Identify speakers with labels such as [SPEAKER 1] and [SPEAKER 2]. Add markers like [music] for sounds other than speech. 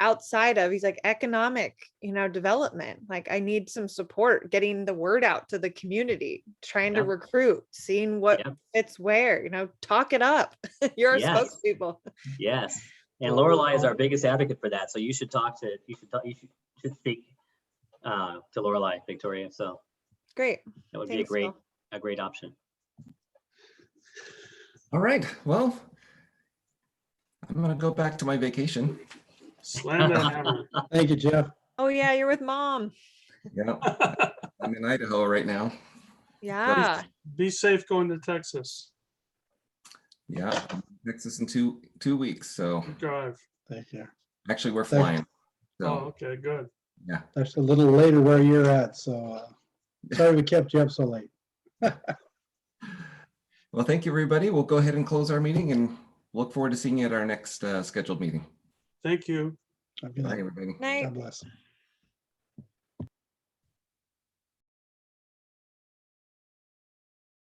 [SPEAKER 1] outside of he's like economic you know development like i need some support getting the word out to the community trying to
[SPEAKER 2] Yeah.
[SPEAKER 1] recruit seeing what
[SPEAKER 2] Yeah.
[SPEAKER 1] fits where you know talk it up [laughs] you're our
[SPEAKER 2] Yes.
[SPEAKER 1] spokespeople
[SPEAKER 2] Yes, and Lorelai is our biggest advocate for that. So you should talk to you should talk, you should, should speak uh, to Lorelai Victoria. So
[SPEAKER 1] great
[SPEAKER 2] that would be a
[SPEAKER 1] Thanks,
[SPEAKER 2] great
[SPEAKER 1] Phil.
[SPEAKER 2] a great option.
[SPEAKER 3] All right, well, I'm gonna go back to my vacation.
[SPEAKER 4] Slam that hammer.
[SPEAKER 5] Thank you, Jeff.
[SPEAKER 1] oh yeah you're with mom
[SPEAKER 3] Yeah, I'm in Idaho right now.
[SPEAKER 1] yeah
[SPEAKER 4] Be safe going to Texas.
[SPEAKER 3] Yeah, I'm in Texas in two, two weeks, so
[SPEAKER 4] Good Drive.
[SPEAKER 5] Thank you.
[SPEAKER 3] actually we're
[SPEAKER 5] Thank-
[SPEAKER 3] flying.
[SPEAKER 4] Oh,
[SPEAKER 3] So,
[SPEAKER 4] okay, good.
[SPEAKER 5] That's a little later where you're at, so uh, sorry we kept you up so late.
[SPEAKER 3] well, thank you, everybody. We'll go ahead and close our meeting and look forward to seeing you at our next uh, scheduled meeting.
[SPEAKER 4] Thank you.
[SPEAKER 5] I'd be
[SPEAKER 3] Bye,
[SPEAKER 5] like,
[SPEAKER 3] everybody.
[SPEAKER 1] night
[SPEAKER 5] God bless.